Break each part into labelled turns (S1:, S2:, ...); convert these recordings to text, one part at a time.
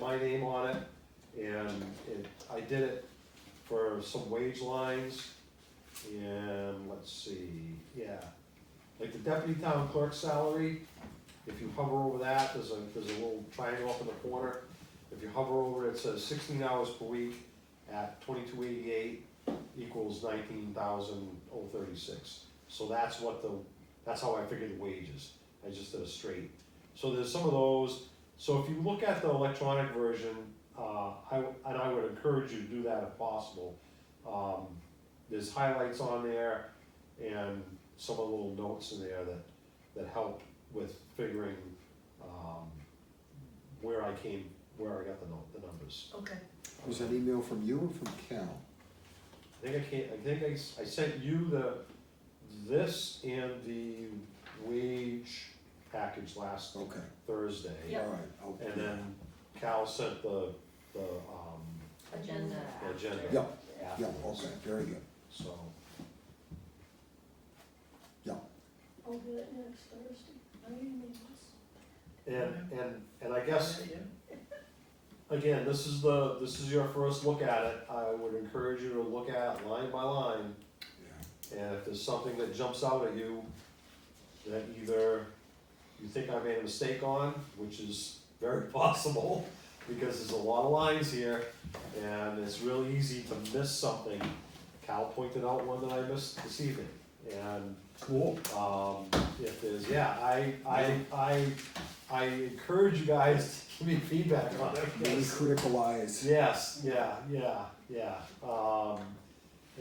S1: my name on it, and it, I did it for some wage lines, and let's see, yeah. Like the deputy town clerk salary, if you hover over that, there's a, there's a little triangle up in the corner. If you hover over it, it says sixteen hours per week at twenty-two eighty-eight equals nineteen thousand oh thirty-six. So that's what the, that's how I figured the wages, I just did a straight. So there's some of those, so if you look at the electronic version, uh, I, w- and I would encourage you to do that if possible. Um, there's highlights on there and some of the little notes in there that, that help with figuring, um, where I came, where I got the no the numbers.
S2: Okay,
S3: Was that email from you or from Cal?
S1: I think I can't, I think I, s- I sent you the, this and the wage package last
S3: Okay,
S1: Thursday.
S2: Yep.
S3: all right. I'll-
S1: And then Cal sent the, the, um,
S2: agenda
S1: the
S2: after.
S1: agenda.
S3: Yeah, Yeah,
S1: afterwards.
S3: okay, very good,
S1: So,
S3: yeah.
S4: I'll do it next Thursday. No, you need this.
S1: and, and, and I guess, again, this is the, this is your first look at it, I would encourage you to look at it line by line, and if there's something that jumps out at you that either you think I made a mistake on, which is very possible, because there's a lot of lines here, and it's real easy to miss something. Cal pointed out one that I missed this evening, and
S3: Cool.
S1: um, if there's, yeah, I, I, I, I encourage you guys to give me feedback on it.
S3: Really
S1: Yes.
S3: critical eyes.
S1: Yes, yeah, yeah, yeah, um,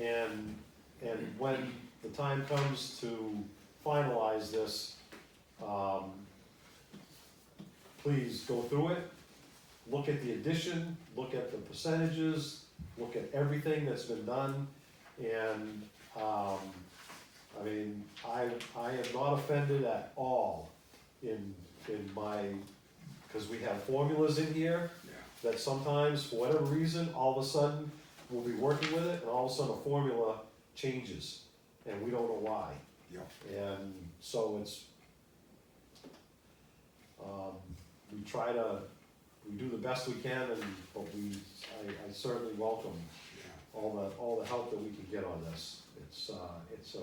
S1: and, and when the time comes to finalize this, um, please go through it, look at the addition, look at the percentages, look at everything that's been done, and, um, I mean, I, I am not offended at all in, in my, cause we have formulas in here, that sometimes, for whatever reason, all of a sudden, we'll be working with it, and all of a sudden, a formula changes, and we don't know why.
S3: Yeah.
S1: And so it's, um, we try to, we do the best we can, and, but we, I, I certainly welcome all the, all the help that we can get on this. It's, uh, it's a,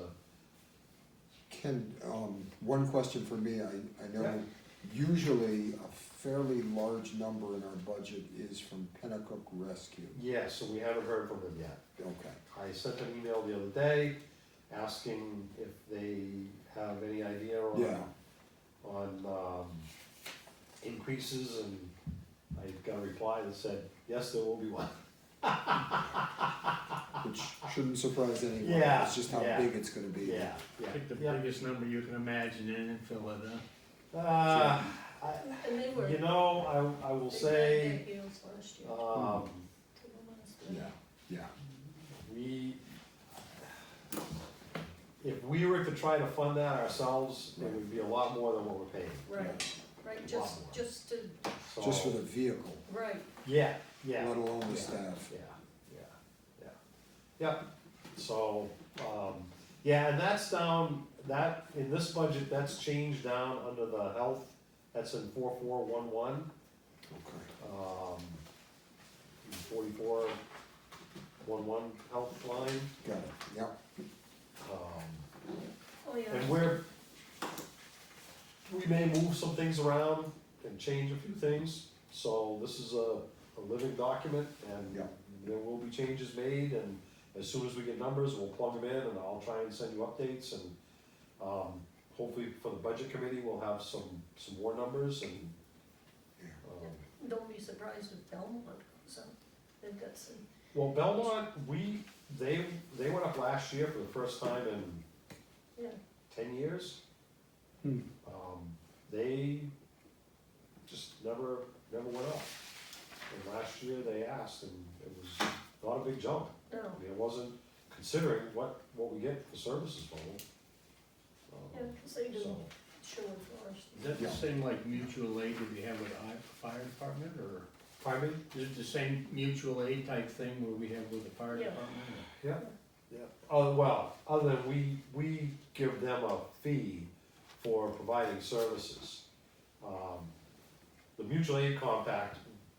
S3: Ken, um, one question for me, I, I
S1: Yeah.
S3: know usually a fairly large number in our budget is from Pennacook Rescue.
S1: yeah, so we haven't heard from them yet.
S3: Okay,
S1: I sent an email the other day asking if they have any idea on
S3: yeah,
S1: on um, increases and I got a reply that said, yes, there will be one.
S3: which shouldn't surprise anyone.
S1: Yeah,
S3: It's just how
S1: yeah.
S3: big it's gonna be.
S1: Yeah, yeah.
S5: Pick the
S1: yeah.
S5: biggest number you can imagine and fill it up.
S1: Uh,
S4: And they
S1: I-
S4: were.
S1: You know, I, I will
S4: they
S1: say,
S4: had their heels last year,
S1: um,
S4: to the last
S3: Yeah,
S4: one.
S3: yeah,
S1: we, if we were to try to fund that ourselves, it would be a lot more than what we're paying.
S4: Right, right,
S1: Wow.
S4: just, just to,
S3: just
S1: So,
S3: for the vehicle,
S4: right,
S1: yeah, yeah.
S3: let alone the
S1: Yeah.
S3: staff.
S1: Yeah, yeah, yeah, yep, so, um, yeah, and that's down, that, in this budget, that's changed down under the health, that's in four four one one,
S3: Okay.
S1: um, forty-four one one health line,
S3: Got it, yep,
S1: um,
S4: oh yeah.
S1: and we're, we may move some things around and change a few things, so this is a, a living document, and
S3: yep.
S1: there will be changes made, and as soon as we get numbers, we'll plug them in, and I'll try and send you updates, and, um, hopefully for the budget committee, we'll have some, some more numbers, and,
S3: Yeah.
S1: um,
S4: Don't be surprised if Belmont goes up, they've got some,
S1: well, Belmont, we, they, they went up last year for the first time in
S4: yeah,
S1: ten years.
S3: Hmm.
S1: Um, they just never, never went up, and last year they asked, and it was not a big jump.
S4: no,
S1: I mean, it wasn't considering what, what we get for services for them.
S4: yeah,
S1: Um,
S4: 'cause they do
S1: So,
S4: show and forest.
S5: Is that the
S3: Yeah.
S5: same like mutual aid that we have with the hi- fire department or
S1: pardon me?
S5: is it the same mutual aid type thing where we have with the fire
S4: Yeah.
S5: department?
S1: Yeah, yeah. Oh, well, other than we, we give them a fee for providing services. Um, The mutual aid compact